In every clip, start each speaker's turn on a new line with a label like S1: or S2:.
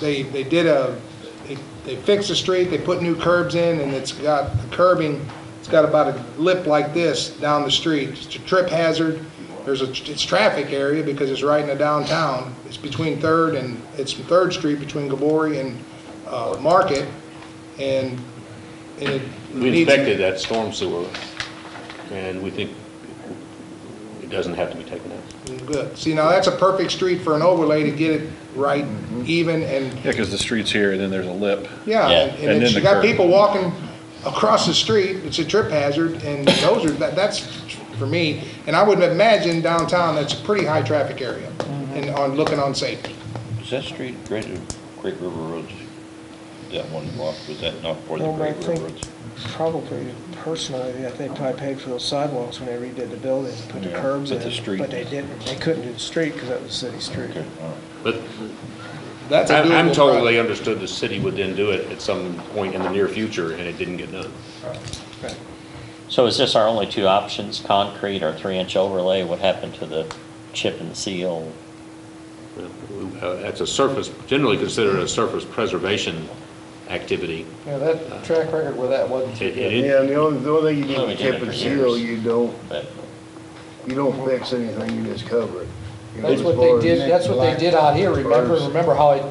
S1: they, they did a, they- they fixed the street, they put new curbs in, and it's got the curbing, it's got about a lip like this down the street. It's a trip hazard. There's a, it's traffic area because it's right in the downtown. It's between Third and, it's Third Street between Gabori and, uh, Market, and, and it.
S2: We
S1: needs-
S2: inspected that storm sewer, and we think it doesn't have to be taken out.
S1: Good. See, now that's a perfect street for an overlay to get it right,
S2: Mm-hmm.
S1: even, and
S3: Yeah, because the street's here, and then there's a lip.
S1: Yeah,
S2: Yeah.
S1: and-
S3: And
S1: and it's, you
S3: then the
S1: got
S3: curb.
S1: people walking across the street, it's a trip hazard, and those are, that, that's for me, and I would imagine downtown, that's a pretty high traffic area, and on, looking on safety.
S4: Is that street, Great, Great River Roads, that one block, was that not for the
S5: Well, I
S4: Great River
S5: think
S4: Roads?
S5: probably personally, I think probably paid for those sidewalks when they redid the building, and put the
S4: Yeah,
S5: curbs in.
S4: but the street-
S5: But they didn't, they couldn't do the street because that was city street.
S4: Okay, all right.
S2: But
S1: That's a
S2: I- I'm
S1: doable
S2: told
S1: project.
S2: they understood the city would then do it at some point in the near future, and it didn't get done.
S5: Right.
S6: So is this our only two options, concrete or three-inch overlay? What happened to the chip and seal?
S2: Uh, That's a surface, generally considered a surface preservation activity.
S7: Yeah, that track record with that wasn't too
S2: It-
S7: good.
S2: it-
S8: Yeah, and the only, the only thing you
S6: Well,
S8: do
S6: we
S8: with
S6: did it
S8: chip
S6: for
S8: and seal,
S6: years.
S8: you don't,
S6: But
S8: you don't fix anything, you just cover it. You know,
S7: That's
S8: as
S7: what
S8: far
S7: they
S8: as-
S7: did, that's what they did out here, remember,
S8: Birds.
S7: remember how it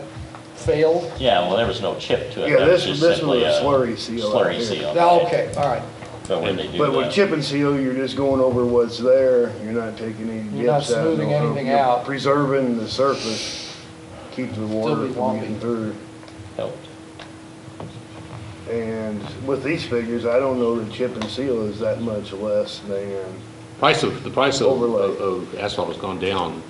S7: failed?
S6: Yeah, well, there was no chip to it.
S8: Yeah,
S6: That
S8: this-
S6: just
S8: this was
S6: simply
S8: a slurry seal out
S6: Slurry
S8: here.
S6: seal.
S7: No, okay, all right,
S6: But when they do
S8: But with
S6: the-
S8: chip and seal, you're just going over what's there, you're not taking any
S7: You're not
S8: dips out.
S7: smoothing
S8: no,
S7: anything
S8: you're
S7: out.
S8: Preserving the surface, keeps the
S7: be
S8: water from
S7: lumpy.
S8: getting through.
S6: helped.
S8: And with these figures, I don't know that chip and seal is that much less than,
S2: Price of, the price of-
S8: Overlay.
S2: of of asphalt has gone down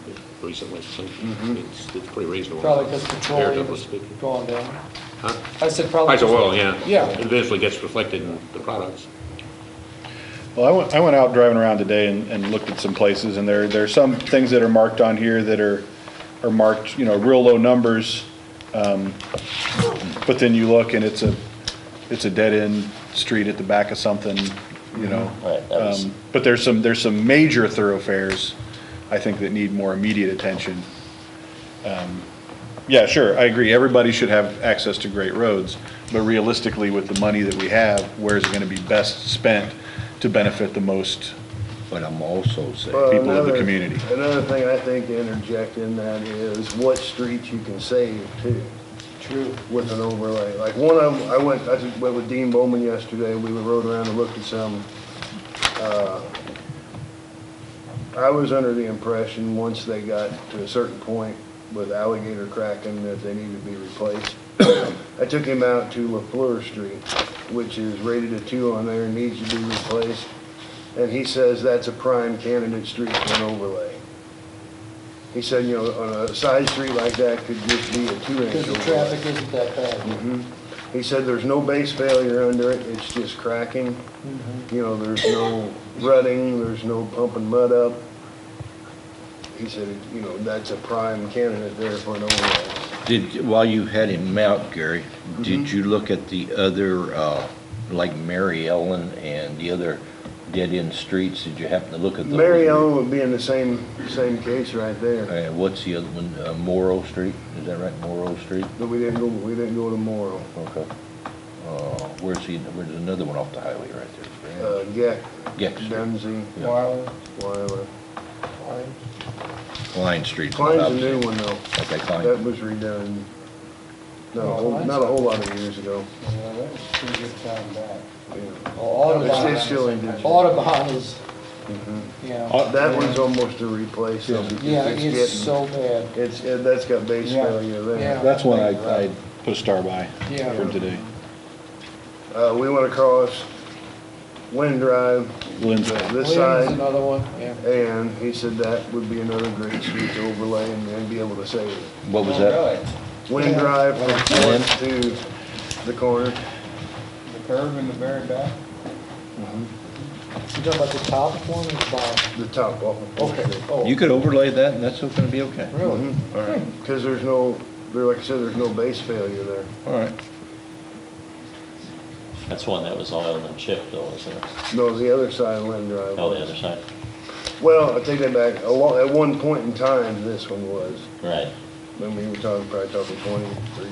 S2: recently, so
S1: Mm-hmm.
S2: it's it's pretty reasonable.
S7: probably because petroleum
S2: Comparatively
S7: is
S2: speaking.
S7: going down.
S2: Huh?
S7: I said probably.
S2: Price of oil, yeah.
S7: Yeah.
S2: It Eventually gets reflected in the products.
S3: Well, I went, I went out driving around today and, and looked at some places, and there, there are some things that are marked on here that are, are marked, you know, real low numbers. Um, but then you look and it's a, it's a dead-end street at the back of something, you know.
S6: Mm-hmm. Right, that was-
S3: Um, But there's some, there's some major thoroughfares, I think, that need more immediate attention. Um, Yeah, sure, I agree, everybody should have access to great roads, but realistically, with the money that we have, where's it gonna be best spent to benefit the most
S4: But I'm also saying.
S8: uh.
S3: people of the
S8: another-
S3: community?
S8: Another thing I think to interject in that is what streets you can save too.
S7: True.
S8: with an overlay. Like one of them, I went, I just went with Dean Bowman yesterday, we rode around and looked at some. Uh, I was under the impression, once they got to a certain point with alligator cracking, that they needed to be replaced. I took him out to LaFleur Street, which is rated a two on there, needs to be replaced. And he says that's a prime candidate street for an overlay. He said, you know, on a side street like that could just be a two-inch
S7: Because the
S8: overlay.
S7: traffic isn't that bad.
S8: He said there's no base failure under it, it's just cracking. You know, there's no rutting, there's no pumping mud up. He said, you know, that's a prime candidate there for an overlay.
S4: Did, while you had him out, Gary,
S8: Mm-hmm.
S4: did you look at the other, uh, like Mary Ellen and the other dead-end streets? Did you happen to look at those?
S8: Mary Ellen would be in the same, same case right there,
S4: Uh, what's the other one, Uh, Morrow Street? Is that right, Morrow Street?
S8: but we didn't go, we didn't go to Morrow.
S4: Okay. Uh, where's the, where's another one off the highway right there?
S8: Uh, Gek,
S4: Gex,
S8: Dunsey,
S7: Marlin,
S8: Wyler.
S7: Marlin.
S4: Klein Street.
S8: Klein's a new one though,
S4: Okay,
S8: that
S4: Klein.
S8: was redone, not a whole, not a whole lot of years ago.
S7: Yeah, that was pretty good time back.
S8: Yeah.
S7: Well, Audubon.
S8: It's Mm-hmm. still in digital.
S7: Audubon is, you
S3: Uh,
S7: know.
S8: uh, Oh, That one's almost a replace. though, because
S7: Yeah, it's
S8: getting-
S7: so bad.
S8: It's, it- that's got base
S7: Yeah,
S8: failure
S7: yeah.
S8: there.
S3: That's one I, I put a star by
S7: Yeah.
S3: for today.
S8: Uh, we went across Wind Drive,
S3: Lynn's,
S8: uh, this
S7: Williams,
S8: side,
S7: another one, yeah.
S8: and he said that would be another great street to overlay and then be able to save it.
S4: What was that?
S8: Wind
S7: Yeah.
S8: Drive from
S4: Lynn?
S8: Fourth to the corner.
S7: The curve in the very back? You talking about the top one or the bottom?
S8: The top off.
S7: Okay,
S4: You
S7: oh,
S4: could overlay that and that's gonna be okay.
S7: really?
S8: Mm-hmm.
S4: All right,
S8: Because there's no, there, like I said, there's no base failure there.
S4: all right.
S6: That's one that was oiled and chipped though, isn't it?
S8: No, the other side of Wind Drive.
S6: Oh, the
S8: was.
S6: other side,
S8: Well, I take that back. A lo- At one point in time, this one was.
S6: right.
S8: I mean, we're talking, probably talking twenty, thirty